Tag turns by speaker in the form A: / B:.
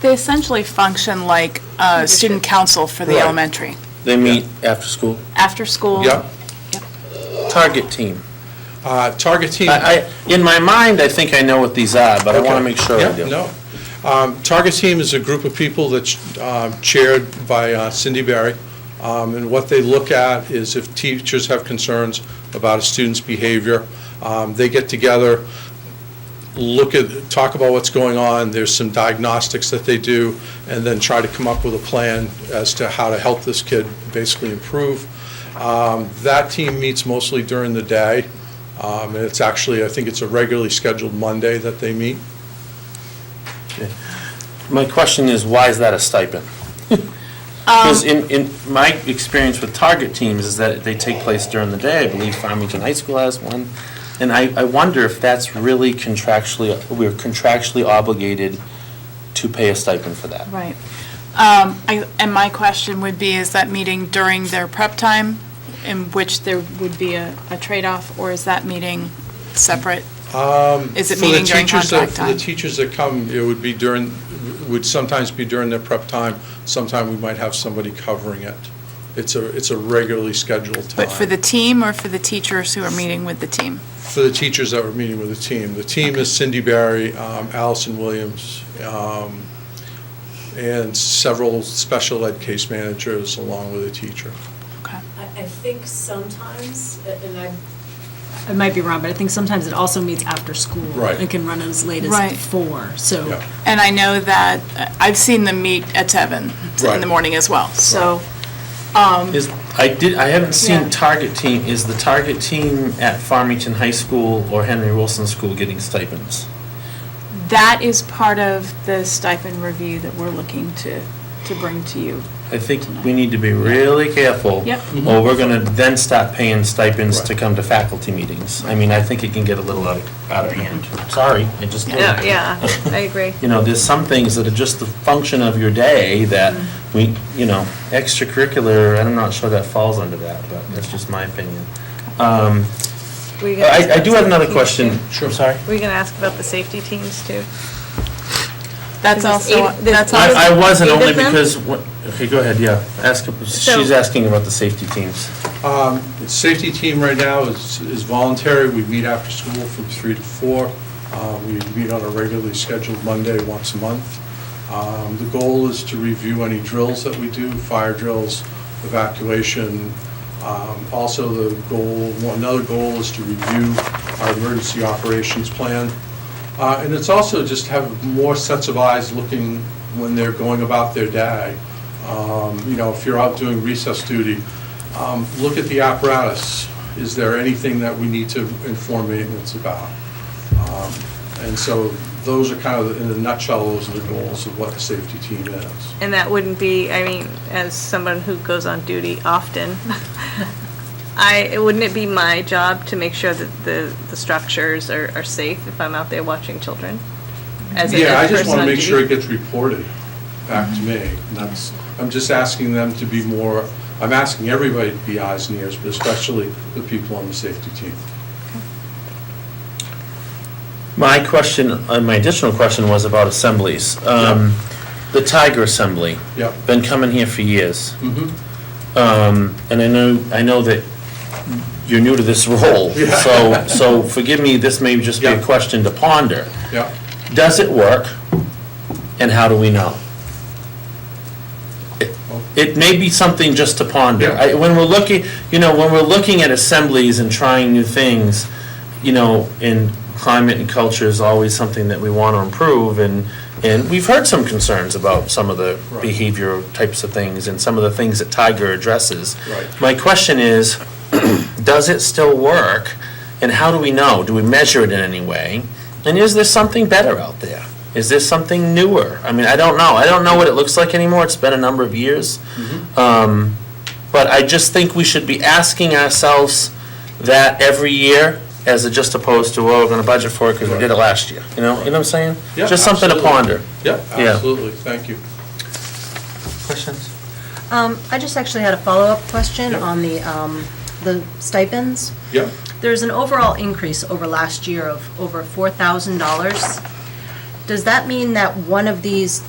A: They essentially function like a student council for the
B: Right.
A: elementary,
B: They meet after school.
A: after school.
C: Yeah.
B: Target team.
C: Uh, Target team.
B: I, I, in my mind, I think I know what these are, but I want to
C: Okay.
B: make sure I
C: Yeah,
B: do.
C: no. Um, Target Team is a group of people that's um, chaired by uh, Cindy Barry, Um, and what they look at is if teachers have concerns about a student's behavior, um, they get together, look at, talk about what's going on, there's some diagnostics that they do, and then try to come up with a plan as to how to help this kid basically improve. Um, That team meets mostly during the day, um, and it's actually, I think it's a regularly scheduled Monday that they meet.
B: My question is, why is that a stipend? Because in, in my experience with target teams is that they take place during the day. I believe Farmington High School has one. And I, I wonder if that's really contractually, we're contractually obligated to pay a stipend for that.
A: Right. Um, I- And my question would be, is that meeting during their prep time, in which there would be a a trade-off, or is that meeting separate? Is it
C: Um, For the
A: meeting during
C: teachers that-
A: contract
C: For
A: time?
C: the teachers that come, it would be during, would sometimes be during their prep time. Sometime we might have somebody covering it. It's a, it's a regularly scheduled time.
A: But for the team or for the teachers who are meeting with the team?
C: For the teachers that were meeting with the team. The team is Cindy Barry, um, Allison Williams, um, and several special ed case managers along with a teacher.
A: Okay.
D: I, I think sometimes, and I. I might be wrong, but I think sometimes it also meets after school.
C: Right.
D: It can run as late
A: Right.
D: as four, so.
C: Yeah.
A: And I know that, uh, I've seen them meet at seven in
C: Right.
A: the morning as well, so.
C: Um,
B: Is, I did, I haven't
A: Yeah.
B: seen target team, is the target team at Farmington High School or Henry Wilson School getting stipends?
A: That is part of the stipend review that we're looking to, to bring to you.
B: I think we need to be really careful.
A: Yep.
B: Or we're gonna then stop paying stipends to
C: Right.
B: come to faculty meetings. I mean, I think it can get a little out of, out of hand. Sorry, it just did.
D: I agree.
B: You know, there's some things that are just the function of your day that we, you know, extracurricular, I'm not sure that falls under that, but that's just my opinion. Um, Uh, I, I do have another question. Sure. Sorry.
E: Were you going to ask about the safety teams too?
A: That's
E: This is
A: also,
E: eight- this-
A: that's
E: Well,
A: also,
B: I, I wasn't
E: eight of
B: only
E: them?
B: because, what- okay, go ahead, yeah. Ask, she's
E: So-
B: asking about the safety teams.
C: Um, Safety team right now is is voluntary. We meet after school from three to four. Uh, We meet on a regularly scheduled Monday once a month. Um, The goal is to review any drills that we do, fire drills, evacuation. Um, Also, the goal, another goal is to review our emergency operations plan. Uh, And it's also just to have more sets of eyes looking when they're going about their day. Um, You know, if you're out doing recess duty, um, look at the apparatus. Is there anything that we need to inform maintenance about? Um, And so those are kind of, in a nutshell, those are the goals of what the safety team is.
E: And that wouldn't be, I mean, as someone who goes on duty often, I, wouldn't it be my job to make sure that the, the structures are, are safe if I'm out there watching children? As a-
C: Yeah, I
E: as a
C: just
E: person
C: want to
E: on
C: make
E: duty?
C: sure it gets reported back to me. That's, I'm just asking them to be more, I'm asking everybody to be eyes and ears, but especially the people on the safety team.
B: My question, uh, my additional question was about assemblies. Um, The Tiger Assembly,
C: Yep.
B: been coming here for years.
C: Mhm.
B: Um, And I know, I know that you're new to this role, so, so forgive me, this may just be a
C: Yeah.
B: question to ponder.
C: Yeah.
B: Does it work, and how do we know? It- It may be something just to ponder.
C: Yeah.
B: I- When we're looking, you know, when we're looking at assemblies and trying new things, you know, in climate and culture is always something that we want to improve, and, and we've heard some concerns about some of the
C: Right.
B: behavior types of things and some of the things that Tiger addresses.
C: Right.
B: My question is, does it still work, and how do we know? Do we measure it in any way? And is there something better out there? Is there something newer? I mean, I don't know. I don't know what it looks like anymore. It's been a number of years.
C: Mm-hmm.
B: Um, But I just think we should be asking ourselves that every year, as a- just opposed to, well, we're gonna budget for it because we did it last year. You know, you know what I'm saying?
C: Yeah,
B: Just something to
C: absolutely.
B: ponder.
C: Yeah,
B: Yeah.
C: absolutely, thank you.
B: Questions?
F: Um, I just actually had a follow-up question
C: Yeah.
F: on the, um, the stipends.
C: Yeah,
F: There's an overall increase over last year of over four thousand dollars. Does that mean that one of these